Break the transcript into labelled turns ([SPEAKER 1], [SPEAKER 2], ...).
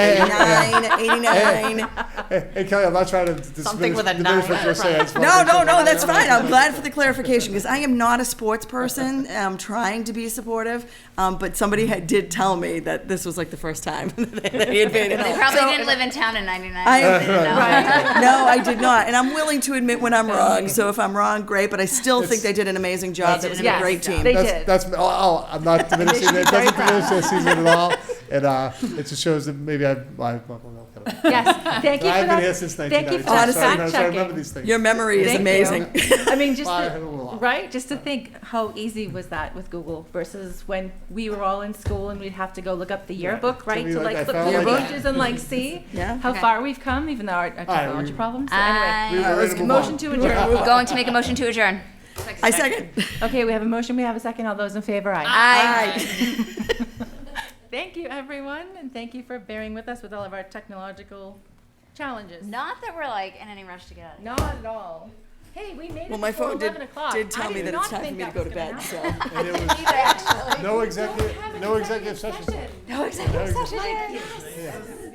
[SPEAKER 1] 89, 89.
[SPEAKER 2] Hey, hey, Kelly, I'm not trying to diminish,
[SPEAKER 3] Something with a
[SPEAKER 2] diminish what
[SPEAKER 3] nine.
[SPEAKER 2] you're saying. It's
[SPEAKER 1] No, no, no, that's fine. I'm glad for the clarification because I am not a sports person. I'm trying to be supportive, um, but somebody had, did tell me that this was like the first time that they had been.
[SPEAKER 4] They probably
[SPEAKER 1] So-
[SPEAKER 4] didn't live in town in '99.
[SPEAKER 1] I-
[SPEAKER 4] they didn't know.
[SPEAKER 1] No, I did not, and I'm willing to admit when I'm wrong. So if I'm wrong, great. But I still think they did an amazing job. That was a
[SPEAKER 3] Yes,
[SPEAKER 1] great team.
[SPEAKER 3] They
[SPEAKER 2] That's,
[SPEAKER 3] did.
[SPEAKER 2] that's oh, oh, I'm not diminishing it. It doesn't diminish that season at all. And uh, it just shows that maybe I, I, I don't know.
[SPEAKER 5] Yes, thank you for
[SPEAKER 2] I've been here
[SPEAKER 5] that.
[SPEAKER 2] since
[SPEAKER 5] Thank you
[SPEAKER 2] 1990.
[SPEAKER 5] for that
[SPEAKER 2] so I'm trying
[SPEAKER 5] fact
[SPEAKER 2] to- I remember
[SPEAKER 5] checking.
[SPEAKER 2] these things.
[SPEAKER 1] Your memory is
[SPEAKER 5] Thank you.
[SPEAKER 1] amazing.
[SPEAKER 5] I mean, just,
[SPEAKER 2] Well, I
[SPEAKER 5] to-
[SPEAKER 2] had a little off.
[SPEAKER 5] right, just to think how easy was that with Google versus when we were all in school and we'd have to go look up the yearbook, right?
[SPEAKER 2] me,
[SPEAKER 5] To
[SPEAKER 2] like, I
[SPEAKER 5] like flip
[SPEAKER 2] found,
[SPEAKER 5] through the
[SPEAKER 2] like,
[SPEAKER 5] pages and like see
[SPEAKER 1] Yeah.
[SPEAKER 5] how
[SPEAKER 4] Okay.
[SPEAKER 5] far we've come, even though our our
[SPEAKER 2] right,
[SPEAKER 5] technology
[SPEAKER 2] we-
[SPEAKER 5] problems. So anyway,
[SPEAKER 2] We
[SPEAKER 4] I
[SPEAKER 2] were ready to
[SPEAKER 5] Motion
[SPEAKER 2] move on.
[SPEAKER 5] to adjourn.
[SPEAKER 4] am going to make a motion to adjourn.
[SPEAKER 1] I second.
[SPEAKER 5] Okay, we have a motion, we have a second. All those in favor, aye.
[SPEAKER 4] Aye.
[SPEAKER 5] Thank you, everyone, and thank you for bearing with us with all of our technological challenges.
[SPEAKER 4] Not that we're like in any rush to get out.
[SPEAKER 5] Not at all. Hey, we made it
[SPEAKER 1] Well, my
[SPEAKER 5] before
[SPEAKER 1] phone did,
[SPEAKER 5] 11 o'clock.
[SPEAKER 1] did tell me
[SPEAKER 5] I did
[SPEAKER 1] that it's
[SPEAKER 5] not
[SPEAKER 1] time for
[SPEAKER 5] think
[SPEAKER 1] me to
[SPEAKER 5] that
[SPEAKER 1] go
[SPEAKER 5] was
[SPEAKER 1] to
[SPEAKER 5] gonna
[SPEAKER 1] bed.
[SPEAKER 5] happen.
[SPEAKER 1] So
[SPEAKER 2] And it was
[SPEAKER 4] Either, actually.
[SPEAKER 2] no
[SPEAKER 5] Don't have
[SPEAKER 2] executive,
[SPEAKER 5] an
[SPEAKER 2] no executive session.
[SPEAKER 4] No executive session.